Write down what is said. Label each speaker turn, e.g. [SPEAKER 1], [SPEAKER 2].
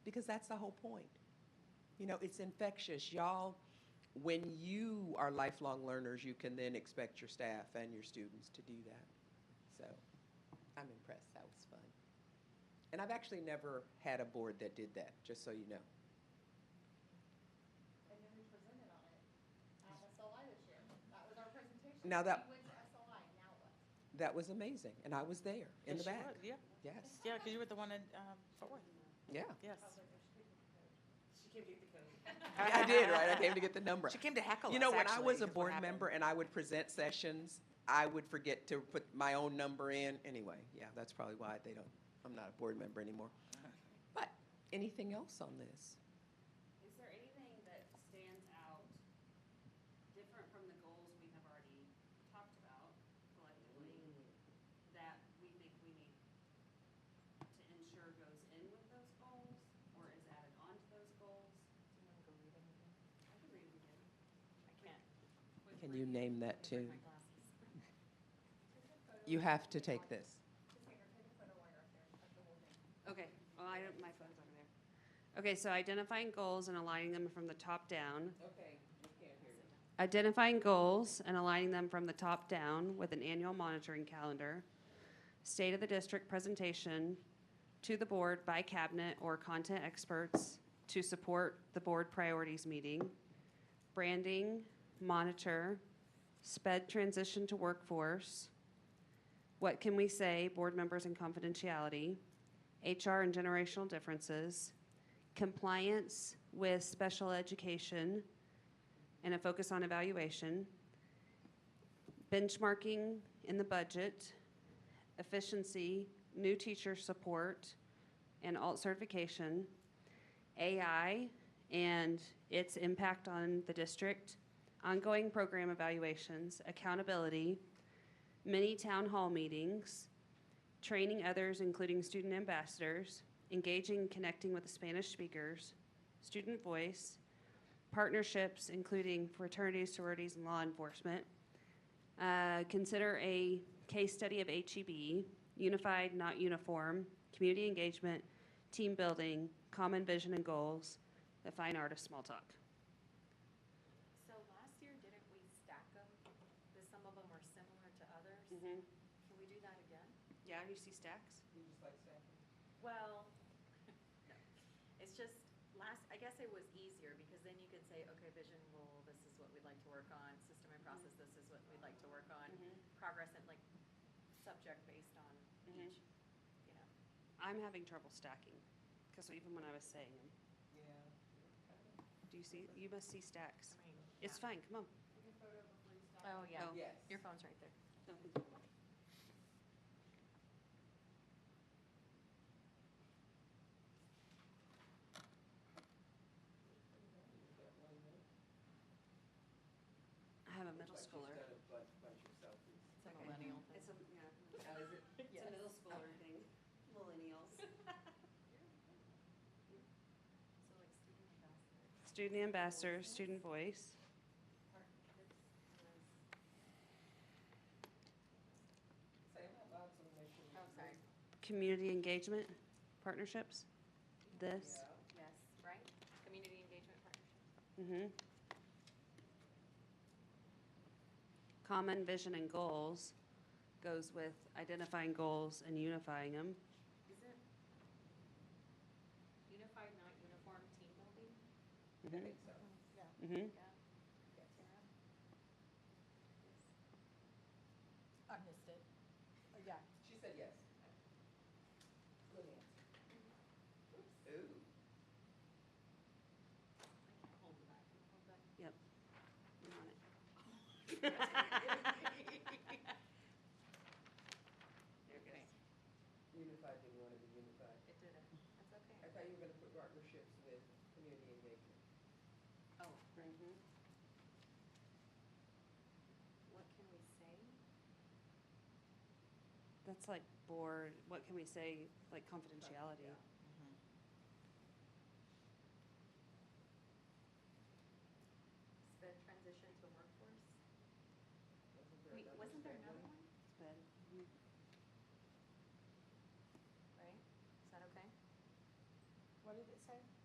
[SPEAKER 1] because that's the whole point. You know, it's infectious. Y'all, when you are lifelong learners, you can then expect your staff and your students to do that. So I'm impressed. That was fun. And I've actually never had a board that did that, just so you know.
[SPEAKER 2] And then we presented on it at SLI this year. That was our presentation.
[SPEAKER 1] Now that-
[SPEAKER 2] We went to SLI, now what?
[SPEAKER 1] That was amazing. And I was there in the
[SPEAKER 3] Yes, you
[SPEAKER 1] back.
[SPEAKER 3] were, Yeah,
[SPEAKER 1] Yes.
[SPEAKER 3] yeah, because you were the one in um, Fort Worth,
[SPEAKER 1] Yeah.
[SPEAKER 3] yes.
[SPEAKER 4] She came to get the code.
[SPEAKER 1] I did, right? I came to get the number.
[SPEAKER 3] She came to heckle
[SPEAKER 1] You know, when I was a board member and I would present sessions, I would forget to put my own number in. Anyway, yeah, that's probably why they don't, I'm not a board member anymore. But anything else on this?
[SPEAKER 5] Is there anything that stands out different from the goals we have already talked about collectively that we think we need to ensure goes in with those goals or is added on to those goals? I can read them again. I can't.
[SPEAKER 1] Can you name that too? You have to take this.
[SPEAKER 5] Okay, well, I don't, my phone's over there. Okay, so identifying goals and aligning them from the top down.
[SPEAKER 1] Okay, we can't hear you.
[SPEAKER 5] Identifying goals and aligning them from the top down with an annual monitoring calendar. State of the district presentation to the board by cabinet or content experts to support the board priorities meeting. Branding, monitor, sped transition to workforce. What can we say, board members and confidentiality, HR and generational differences, compliance with special education, and a focus on evaluation, benchmarking in the budget, efficiency, new teacher support, and alt certification, AI and its impact on the district, ongoing program evaluations, accountability, mini town hall meetings, training others, including student ambassadors, engaging and connecting with the Spanish speakers, student voice, partnerships, including fraternities, sororities, and law enforcement. Uh, consider a case study of HEB, unified, not uniform, community engagement, team building, common vision and goals, the fine art of small talk.
[SPEAKER 6] So last year, didn't we stack them? Because some of them were similar to others. Can we do that again?
[SPEAKER 5] Yeah, you see stacks?
[SPEAKER 6] Well, no. it's just last, I guess it was easier because then you could say, okay, vision rule, this is what we'd like to work on. System and process, this is what we'd like to work on. Progress and like subject based on
[SPEAKER 5] Mhm.
[SPEAKER 6] each, you know.
[SPEAKER 5] I'm having trouble stacking, because even when I was saying them. Do you see, you must see stacks. It's fine, come on.
[SPEAKER 6] Oh,
[SPEAKER 5] yeah. Oh.
[SPEAKER 1] Yes.
[SPEAKER 6] Your phone's right there.
[SPEAKER 5] I have a middle schooler.
[SPEAKER 6] It's a millennial thing.
[SPEAKER 5] It's a, yeah. It's a middle schooler thing, millennials.
[SPEAKER 6] So like student
[SPEAKER 5] Student
[SPEAKER 6] ambassador.
[SPEAKER 5] ambassador, student voice.
[SPEAKER 6] um, Oh, sorry.
[SPEAKER 5] community engagement partnerships, this,
[SPEAKER 6] Yes, right? Community engagement partnership.
[SPEAKER 5] hmm Common vision and goals goes with identifying goals and unifying them.
[SPEAKER 6] Is it unified, not uniform team building?
[SPEAKER 5] Mm-hmm. hmm
[SPEAKER 6] Yeah. Tara? Yes.
[SPEAKER 7] I missed it. Uh, Yeah,
[SPEAKER 1] She said yes. Ooh.
[SPEAKER 6] I can't hold it back. Hold back.
[SPEAKER 1] Unified didn't want to be unified.
[SPEAKER 6] It did it. That's okay.
[SPEAKER 1] I thought you were going to put partnerships with community engagement.
[SPEAKER 6] Oh,
[SPEAKER 5] mm-hmm.
[SPEAKER 6] what can we say?
[SPEAKER 5] That's like board, what can we say, like confidentiality?
[SPEAKER 6] Sped transition to workforce?
[SPEAKER 1] Wait,
[SPEAKER 6] Wait, wasn't there another one?
[SPEAKER 5] It's bad.
[SPEAKER 6] Right? Is that okay?
[SPEAKER 7] what did it say?
[SPEAKER 4] say?